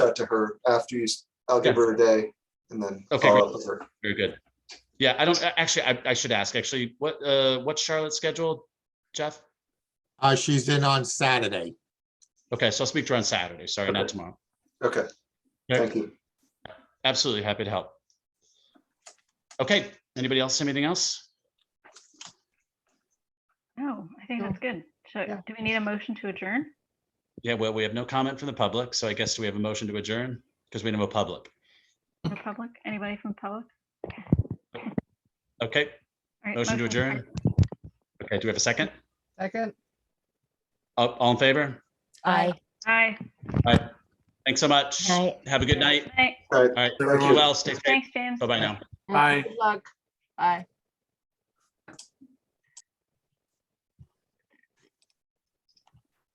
that to her after you, s- I'll give her a day and then Okay, follow great. up with her. Very good. Yeah, I don't, actually, I, I should ask, actually, what, uh, what's Charlotte's schedule, Jeff? Uh, she's in on Saturday. Okay, so I'll speak to her on Saturday. Sorry, not Okay. tomorrow. Okay, Yeah. thank you. Absolutely happy to help. Okay, anybody else, have anything else? No, Oh, I think that's good. So Yeah. do we need a motion to adjourn? Yeah, well, we have no comment from the public, so I guess do we have a motion to adjourn because we don't have a public. From public? Anybody from public? Okay, All right, motion to second. adjourn. Okay, do we have a second? Second. All all in favor? Aye. Aye. All right. Thanks so much. Night. Have a good night. Thanks- All right. All right, Thank be you. well, stay safe. Thanks, James. Bye-bye now. Aye. Good luck. Aye.